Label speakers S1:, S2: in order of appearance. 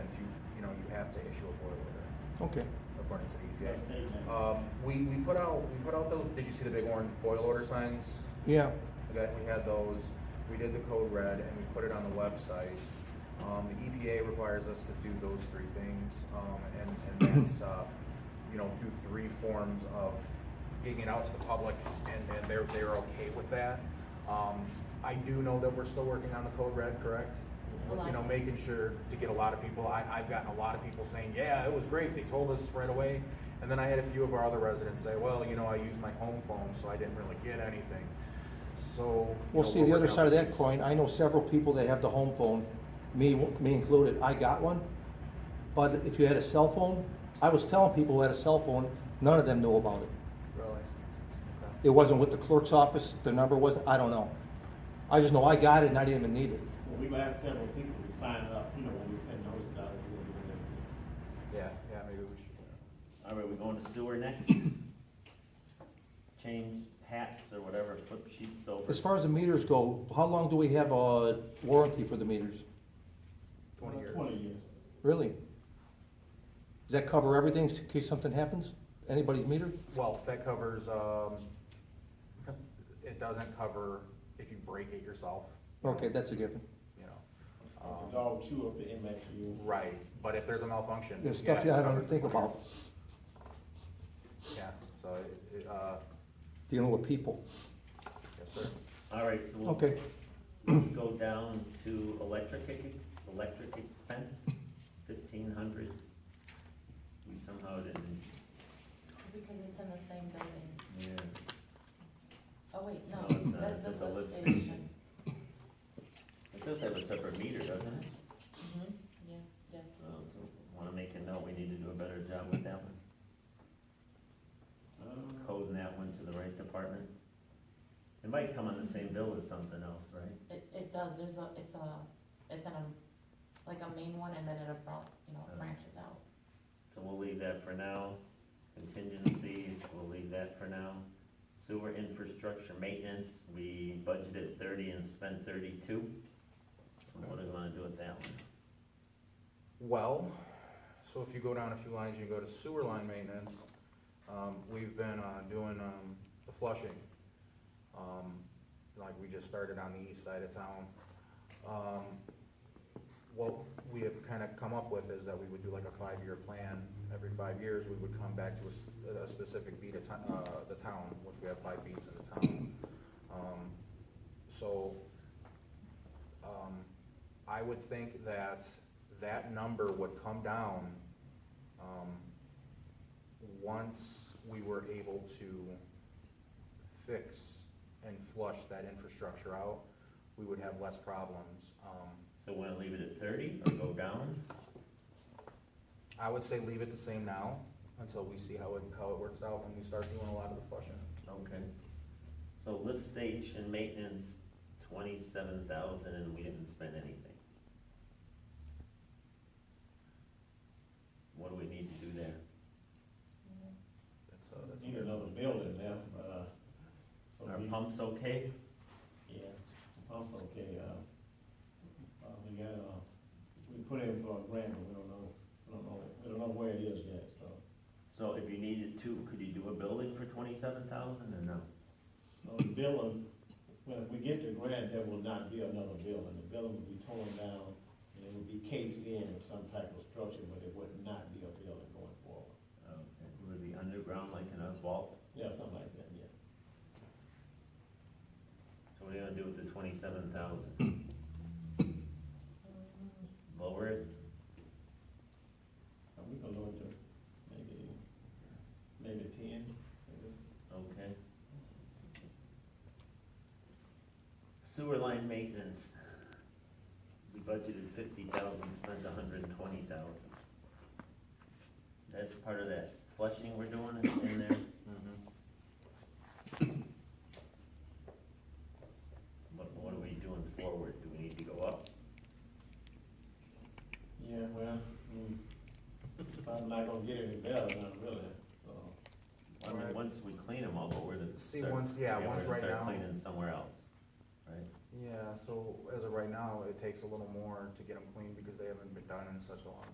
S1: issue a boil order,
S2: Okay.
S1: according to the EPA.
S3: That's statement.
S1: Um, we, we put out, we put out those, did you see the big orange boil order signs?
S2: Yeah.
S1: That we had those, we did the code red and we put it on the website. Um, the EPA requires us to do those three things, um, and, and that's, uh, you know, do three forms of getting it out to the public and, and they're, they're okay with that. Um, I do know that we're still working on the code red, correct?
S4: A lot.
S1: You know, making sure to get a lot of people, I, I've gotten a lot of people saying, yeah, it was great, they told us right away. And then I had a few of our other residents say, well, you know, I used my home phone, so I didn't really get anything. So. you
S2: Well,
S1: know,
S2: see,
S1: we're
S2: the other
S1: working
S2: side of
S1: on
S2: that
S1: these.
S2: coin, I know several people that have the home phone, me, me included, I got one. But if you had a cell phone, I was telling people who had a cell phone, none of them knew about it.
S1: Really? Okay.
S2: It wasn't with the clerk's office, the number wasn't, I don't know. I just know I got it and I didn't even need it.
S3: Well, we've asked several people to sign up, you know, when we send notice out. we were doing everything.
S1: Yeah, yeah, maybe we should. uh,
S3: All right, we're going to sewer next. Change hats or whatever, flip sheets over.
S2: As far as the meters go, how long do we have a warranty for the meters?
S1: Twenty years.
S3: Twenty years.
S2: Really? Does that cover everything in case something happens? Anybody's meter?
S1: Well, that covers, um, it doesn't cover if you break it yourself,
S2: Okay, that's a given.
S1: you know.
S3: The
S1: Um,
S3: dog chew up the MXU.
S1: Right, but if there's a malfunction.
S2: There's
S1: yeah,
S2: stuff
S1: it's
S2: you I
S1: covered.
S2: don't think about,
S1: Yeah, so, it- it, uh,
S2: dealing with people.
S1: yes, sir.
S3: All right, so we'll
S2: Okay,
S3: Let's go down to electric ex, electric expense, fifteen hundred. We somehow didn't,
S4: Because it's in the same building.
S3: yeah,
S4: Oh, wait,
S3: No,
S4: no,
S3: it's not.
S4: that's
S3: It's
S4: the
S3: at the
S4: lift
S3: lift
S4: station.
S3: it does have a separate meter, doesn't it?
S4: Mhm, Yeah, yes.
S3: Oh, so wanna make a note, we need to do a better job with that one. Coding that one to the right department. It might come on the same bill as something else, right?
S4: It, it does, there's a, it's a, it's in a, like a main one and then it about, you know,
S3: Uh.
S4: branches out.
S3: So we'll leave that for now. Contingencies, we'll leave that for now. Sewer infrastructure maintenance, we budgeted thirty and spent thirty-two. So What do we wanna do with that one?
S1: Well, so if you go down a few lines, you go to sewer line maintenance, um, we've been, uh, doing, um, the flushing. Um, like we just started on the east side of town. Um, what we have kinda come up with is that we would do like a five-year plan. Every five years, we would come back to a s- a, specific beat of ti- uh, the town, which we have five beats in the town. Um, so, um, I would think that that number would come down, um, once we were able to fix and flush that infrastructure out, we would have less problems. Um,
S3: So wanna leave it at thirty or go down?
S1: I would say leave it the same now, until we see how it, how it works out when we start doing a lot of the flushing.
S3: Okay. So lift station maintenance, twenty-seven thousand and we didn't spend anything. What do we need to do there?
S1: That's, uh, that's-
S5: Need another building now, but, uh, so
S3: Our
S5: we,
S3: pumps okay?
S5: yeah, pump's okay, uh, uh, we got, uh, we put in for a grant, but we don't know, we don't know, we don't know where it is yet, so.
S3: So if you needed to, could you do a building for twenty-seven thousand or no?
S5: So the building, when we get the grant, there will not be another building, the building will be torn down, and it will be cased in with some type of structure, but it would not be a building going forward.
S3: Okay, would it be underground like in a vault?
S5: Yeah, something like that, yeah.
S3: So what are you gonna do with the twenty-seven thousand? Lower it?
S5: And Uh, we can lower it to maybe, maybe ten, maybe.
S3: Okay. Sewer line maintenance. We budgeted fifty thousand, spent a hundred and twenty thousand. That's part of that flushing we're doing is in there. What, what are we doing forward? Do we need to go up?
S5: Yeah, well, mm, I'm not gonna get any better, not really, so.
S3: I mean,
S1: Right.
S3: once we clean them up, but we're gonna
S1: See,
S3: start-
S1: once- yeah, once right
S3: We're gonna
S1: now-
S3: start cleaning somewhere else, right?
S1: Yeah, so as of right now, it takes a little more to get them clean because they haven't been done in such a long